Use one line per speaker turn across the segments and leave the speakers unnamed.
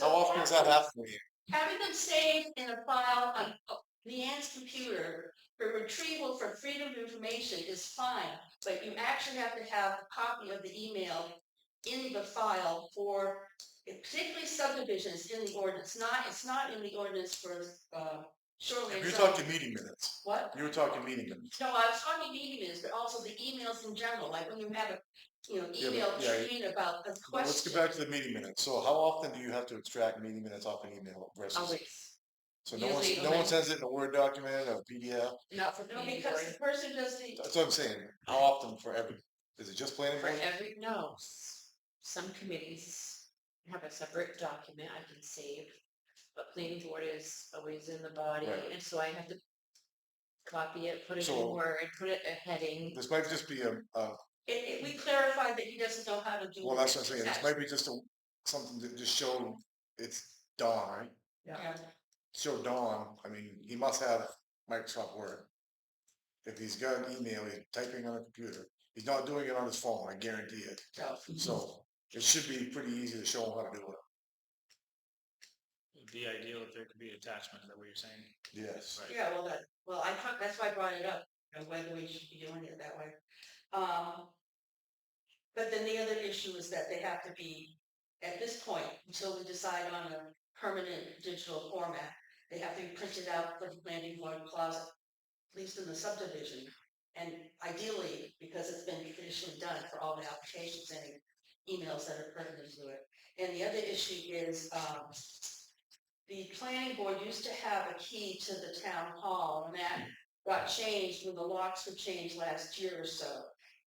does that have for you?
Having them saved in a file on oh, Leanne's computer for retrieval for freedom of information is fine, but you actually have to have a copy of the email in the file for particularly subdivisions in the ordinance, not, it's not in the ordinance for, uh, shoreline
You're
zone.
talking meeting minutes.
What?
You were talking meeting minutes.
No, I was talking meeting minutes, but also the emails in general, like when you have a, you know,
Yeah, but-
email
yeah, you-
chain about a
Well, Let's
question.
get back to the meeting minutes. So how often do you have to extract meeting minutes off an email versus?
Always,
So no one,
usually
no one
only-
sends it in a Word document or PDF?
not for
No,
planning
because
board,
the person does the,
That's what I'm saying. How often for every, is it just planning
for
board?
every, no, s- some committees have a separate document I can save. But planning board is always in the body,
Right.
and so I have to copy it, put it in
So-
Word, put it a heading.
This might just be a, a
It, it, we clarified that he doesn't know how to do.
Well, that's what I'm saying, this
that.
might be just a, something to just show it's Dawn, right?
Yeah.
Show Dawn, I mean, he must have Microsoft Word. If he's got an email, he's typing on a computer, he's not doing it on his phone, I guarantee it,
Yeah.
so it should be pretty easy to show him how to do it.
It'd be ideal if there could be attachment, is that what you're saying?
Yes.
Right.
Yeah, well, that, well, I thought, that's why I brought it up, you know, whether we should be doing it that way. Um, but then the other issue is that they have to be, at this point, until we decide on a permanent digital format, they have to be printed out for the planning board closet, at least in the subdivision. And ideally, because it's been traditionally done for all the applications and emails that are pertinent to it. And the other issue is, um, the planning board used to have a key to the town hall, and that got changed when the locks were changed last year or so.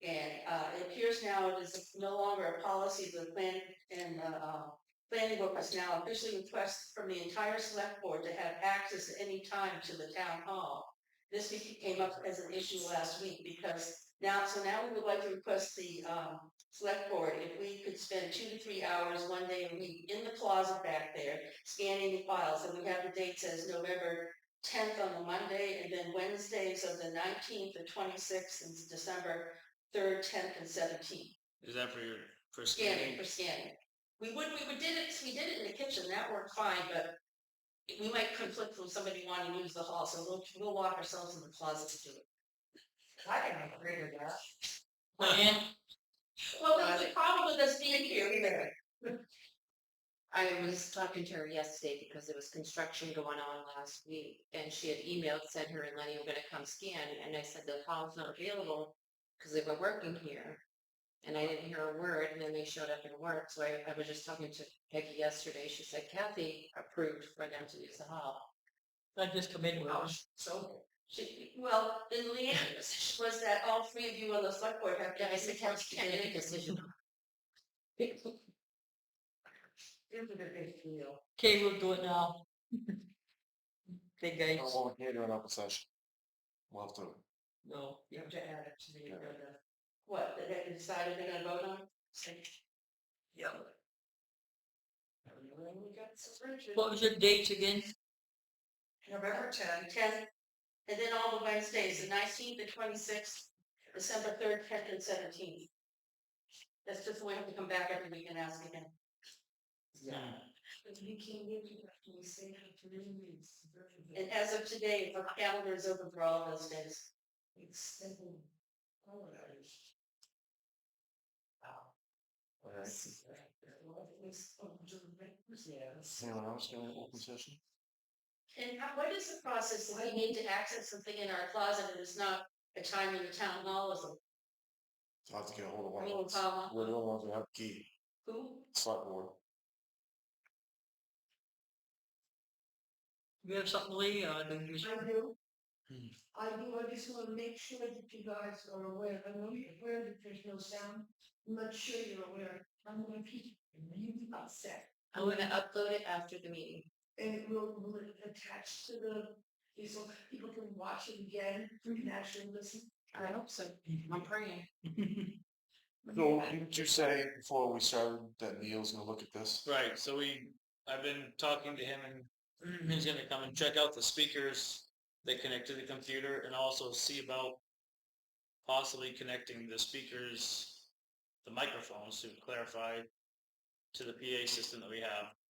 And uh, it appears now it is no longer a policy of the plan, and the uh, planning board must now officially request from the entire select board to have access at any time to the town hall. This be- came up as an issue last week because now, so now we would like to request the um, select board if we could spend two to three hours one day a week in the closet back there scanning the files, and we have the dates as November tenth on the Monday, and then Wednesdays of the nineteenth, the twenty-sixth, and December third, tenth, and seventeenth,
Is that for your, for
scanning
scanning?
for scanning. We would, we would did it, we did it in the kitchen, that worked fine, but we might conflict with somebody wanting to use the hall, so we'll, we'll lock ourselves in the closet to do it.
I can agree with that.
Well, the- the problem with us being here, we know.
I was talking to her yesterday because there was construction going on last week and she had emailed, said her and Lenny were gonna come scan and I said the hall's not available because they were working here. And I didn't hear a word and then they showed up and worked. So I, I was just talking to Peggy yesterday. She said Kathy approved for them to use the hall.
I just come in with
Oh,
us.
so, she, well, then Leanne was was that all three of you on the select board have.
Yeah, I said Kathy can make a decision.
Here's a big deal.
Okay, we'll do it now. Okay,
I
guys,
won't hear an open session. We'll have to,
no,
You have to add it to the
Yeah.
agenda. What, they haven't decided they're gonna vote on? Say-
yeah.
Well, we got some Richard.
What was your dates again?
November tenth. Tenth, and then all the Wednesdays, the nineteenth, the twenty-sixth, December third, tenth, and seventeenth. That's just the way I have to come back every week and ask again. And as of today, the calendar is open for all those days.
oh.
alright,
uh,
anyone else doing an open session?
And how, what is the process? if We need to access something in our closet and it's not a time when the town hall is a
I'll have to get hold of one
little
of us.
town.
We're the only ones that have a key,
Who?
select board.
You have something, Lee, or do you?
I do.
Hmm.
I do, I just wanna make sure that you guys are aware, I know you're aware that there's no sound, I'm not sure you're aware, I'm gonna keep really upset.
I'm gonna upload it after the meeting.
And it will, will it attach to the, so people can watch it again, and actually listen.
I hope so. I'm praying.
So didn't you say before we started that Neil's gonna look at this?
Right, so we, I've been talking to him and he's gonna come and check out the speakers that connect to the computer and also see about possibly connecting the speakers, the microphones to clarify to the PA system that we have.